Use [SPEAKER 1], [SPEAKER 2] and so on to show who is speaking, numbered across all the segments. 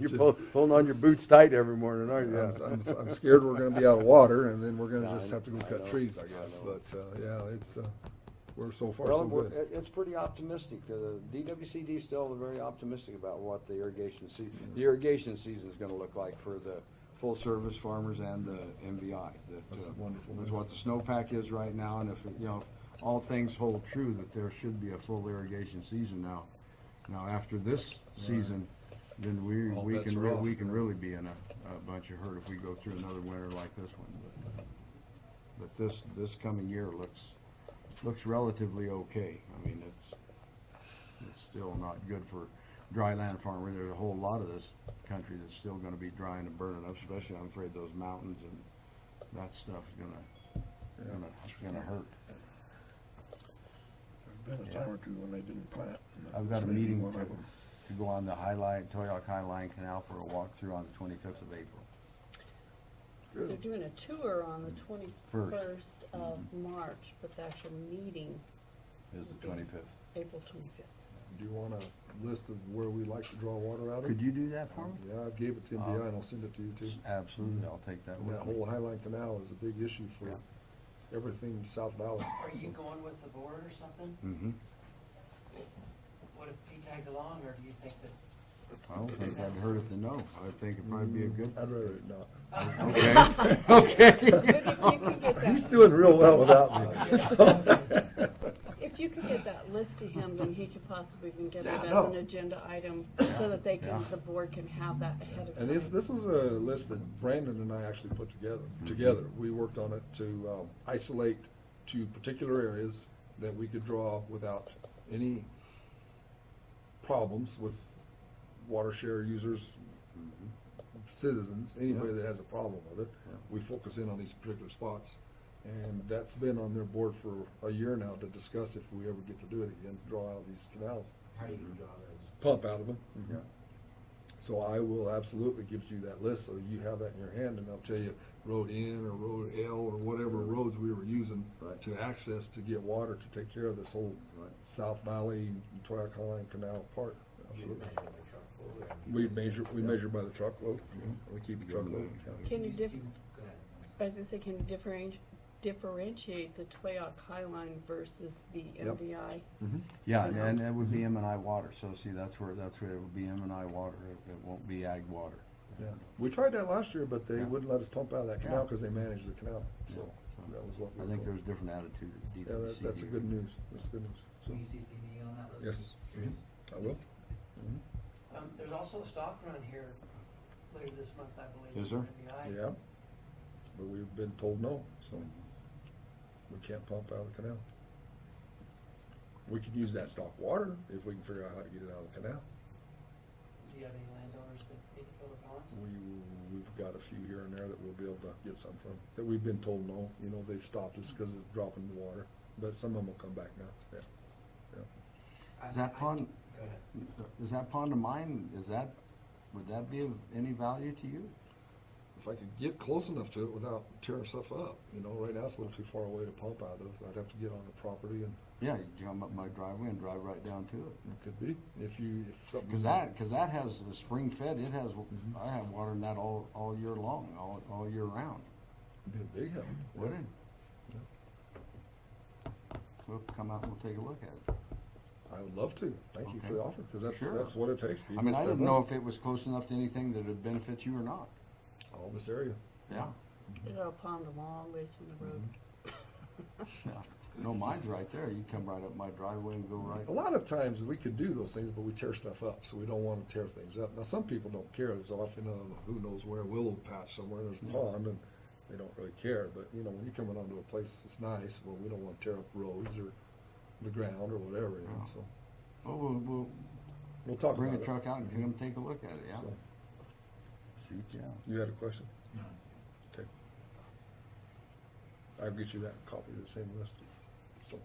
[SPEAKER 1] You're pull- pulling on your boots tight every morning, aren't
[SPEAKER 2] I'm,
[SPEAKER 1] you?
[SPEAKER 2] I'm, I'm scared we're gonna be out of water, and then we're
[SPEAKER 1] No,
[SPEAKER 2] gonna
[SPEAKER 1] I
[SPEAKER 2] just have to go
[SPEAKER 1] know, I
[SPEAKER 2] cut
[SPEAKER 1] know,
[SPEAKER 2] trees, I
[SPEAKER 1] I
[SPEAKER 2] guess,
[SPEAKER 1] know.
[SPEAKER 2] but, uh, yeah, it's, uh, we're so far
[SPEAKER 3] Well,
[SPEAKER 2] so
[SPEAKER 3] we're-
[SPEAKER 2] good.
[SPEAKER 3] it- it's pretty optimistic. Uh, The DWCD is still very optimistic about what the irrigation sea, the irrigation season's gonna look like for the full-service farmers and the MBI. That,
[SPEAKER 2] That's
[SPEAKER 3] uh,
[SPEAKER 2] wonderful.
[SPEAKER 3] With what the snowpack is right now, and if, you know, all things hold true, that there should be a full irrigation season now. Now, after this season, then we,
[SPEAKER 2] All
[SPEAKER 3] we
[SPEAKER 2] bets
[SPEAKER 3] can,
[SPEAKER 2] are
[SPEAKER 3] re-
[SPEAKER 2] off.
[SPEAKER 3] we can really be in a, a bunch of hurt if we go through another winter like this one. But, uh, But this, this coming year looks, looks relatively okay. I mean, it's, it's still not good for dry land farming. There's a whole lot of this country that's still gonna be drying and burning up, especially I'm afraid those mountains and that stuff's gonna, gonna, gonna hurt.
[SPEAKER 4] Been a time or two when they didn't plant.
[SPEAKER 3] I've got a
[SPEAKER 4] Maybe
[SPEAKER 3] meeting
[SPEAKER 4] one
[SPEAKER 3] to,
[SPEAKER 4] of 'em.
[SPEAKER 3] to go on the Highline, Toyoak Highline Canal for a walkthrough on the twenty-fifth of April.
[SPEAKER 5] They're doing a tour on the twenty-first of March, but the actual meeting,
[SPEAKER 3] Is the twenty-fifth.
[SPEAKER 5] April twenty-fifth.
[SPEAKER 2] Do you want a list of where we like to draw water out of?
[SPEAKER 3] Could you do that for me?
[SPEAKER 2] Yeah, I gave it to MBI, and I'll send it to you too.
[SPEAKER 3] Absolutely, I'll take that
[SPEAKER 2] And
[SPEAKER 3] with
[SPEAKER 2] that
[SPEAKER 3] me.
[SPEAKER 2] whole Highline Canal is a big issue for
[SPEAKER 3] Yeah.
[SPEAKER 2] everything South Valley.
[SPEAKER 6] Are you going with the board or something?
[SPEAKER 3] Mm-hmm.
[SPEAKER 6] What if he tagged along, or do you think that?
[SPEAKER 3] I don't think that would hurt if they know. I think it'd probably be a good.
[SPEAKER 2] I'd rather not.
[SPEAKER 3] Okay, okay.
[SPEAKER 2] He's doing real well without me.
[SPEAKER 5] If you could get that list to him, then he could possibly even get it
[SPEAKER 2] Yeah, I
[SPEAKER 5] as
[SPEAKER 2] know.
[SPEAKER 5] an agenda item, so that they can, the board can have that ahead of time.
[SPEAKER 2] And this, this was a list that Brandon and I actually put together, together. We worked on it to um, isolate to particular areas that we could draw without any problems with water share users, citizens, anybody that has a problem with it.
[SPEAKER 3] Yeah.
[SPEAKER 2] We focus in on these particular spots. And that's been on their board for a year now to discuss if we ever get to do it again, draw out these canals
[SPEAKER 6] How do you draw those?
[SPEAKER 2] pump out of them.
[SPEAKER 3] Yeah.
[SPEAKER 2] So I will absolutely give you that list, so you have that in your hand, and I'll tell you road N or road L or whatever roads we were using
[SPEAKER 3] Right.
[SPEAKER 2] to access to get water to take care of this whole
[SPEAKER 3] Right.
[SPEAKER 2] South Valley, Toyac Line Canal Park. Absolutely. We measure, we measure by the truckload,
[SPEAKER 3] Mm-hmm.
[SPEAKER 2] we keep a truckload. account.
[SPEAKER 5] Can you diff,
[SPEAKER 6] Go ahead.
[SPEAKER 5] as I say, can you differentiate, differentiate the Toyoak Highline versus the
[SPEAKER 2] Yep.
[SPEAKER 5] MVI?
[SPEAKER 3] Yeah, and- and that would be M and I water, so see, that's where, that's where it would be M and I water, it, it won't be ag water.
[SPEAKER 2] Yeah. We tried that last year, but they
[SPEAKER 3] Yeah.
[SPEAKER 2] wouldn't let us pump out of that canal
[SPEAKER 3] Yeah.
[SPEAKER 2] because they manage the canal, so
[SPEAKER 3] Yeah.
[SPEAKER 2] that was what. we
[SPEAKER 3] I
[SPEAKER 2] were
[SPEAKER 3] think
[SPEAKER 2] told.
[SPEAKER 3] there's different attitude at DWCD.
[SPEAKER 2] Yeah, that- that's a good news, that's good news.
[SPEAKER 6] Will you
[SPEAKER 2] So,
[SPEAKER 6] CC me on that
[SPEAKER 2] Yes.
[SPEAKER 6] list? Yes.
[SPEAKER 2] I will.
[SPEAKER 6] Um, there's also a stock run here later this month, I believe.
[SPEAKER 3] Is there?
[SPEAKER 6] in the eye.
[SPEAKER 2] Yeah, but we've been told no, so we can't pump out of the canal. We could use that stock water if we can figure out how to get it out of the canal.
[SPEAKER 6] Do you have any landowners that need to fill the ponds?
[SPEAKER 2] We, we've got a few here and there that we'll be able to get some from, that we've been told no, you know, they've stopped us because of dropping the water, but some of them will come back now, yeah.
[SPEAKER 6] I-
[SPEAKER 3] Is that
[SPEAKER 6] I-
[SPEAKER 3] pond,
[SPEAKER 6] Go ahead.
[SPEAKER 3] is that pond of mine, is that, would that be of any value to you?
[SPEAKER 2] If I could get close enough to it without tearing stuff up, you know, right now it's a little too far away to pump out of, I'd have to get on the property and
[SPEAKER 3] Yeah, you come up my driveway and drive right down to it.
[SPEAKER 2] it could be, if you, if something.
[SPEAKER 3] Cause that, cause that has, the spring fed, it has,
[SPEAKER 2] Mm-hmm.
[SPEAKER 3] I have water in that all, all year long, all, all year round,
[SPEAKER 2] Be a big help.
[SPEAKER 3] would it? We'll come out and we'll take a look at it.
[SPEAKER 2] I would love to. Thank you for
[SPEAKER 3] Okay.
[SPEAKER 2] the offer, because that's,
[SPEAKER 3] Sure.
[SPEAKER 2] that's what it takes.
[SPEAKER 3] I
[SPEAKER 2] People
[SPEAKER 3] mean, I
[SPEAKER 2] step
[SPEAKER 3] didn't know
[SPEAKER 2] up.
[SPEAKER 3] if it was close enough to anything that would benefit you or not.
[SPEAKER 2] All this area.
[SPEAKER 3] Yeah.
[SPEAKER 5] It'll pond a long ways from the road.
[SPEAKER 3] No, mine's right there. You come right up my driveway and go right.
[SPEAKER 2] A lot of times, we could do those things, but we tear stuff up, so we don't want to tear things up. Now, some people don't care. There's often a, who knows where, willow patch somewhere, there's a pond, and they don't really care. But, you know, when you're coming onto a place that's nice, well, we don't want to tear up roads or the ground or whatever, you know, so.
[SPEAKER 3] Oh, we'll,
[SPEAKER 2] We'll
[SPEAKER 3] we'll
[SPEAKER 2] talk
[SPEAKER 3] bring
[SPEAKER 2] about
[SPEAKER 3] a
[SPEAKER 2] it.
[SPEAKER 3] truck out and come take a look at it, yeah.
[SPEAKER 2] So,
[SPEAKER 3] Shoot, yeah.
[SPEAKER 2] You had a question? Okay. I'll get you that copy of the same list. So,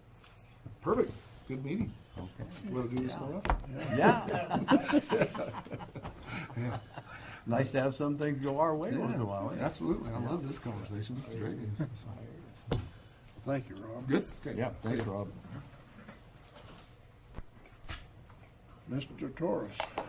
[SPEAKER 2] Perfect. Good meeting.
[SPEAKER 3] Okay.
[SPEAKER 2] Want to do this tomorrow?
[SPEAKER 3] Yeah. Nice to have some things go our way once in a while, eh?
[SPEAKER 2] Absolutely. I love this conversation. This is great news.
[SPEAKER 1] Thank you, Rob.
[SPEAKER 2] Good?
[SPEAKER 3] Yeah, thanks, Rob.
[SPEAKER 1] Mr. Torres.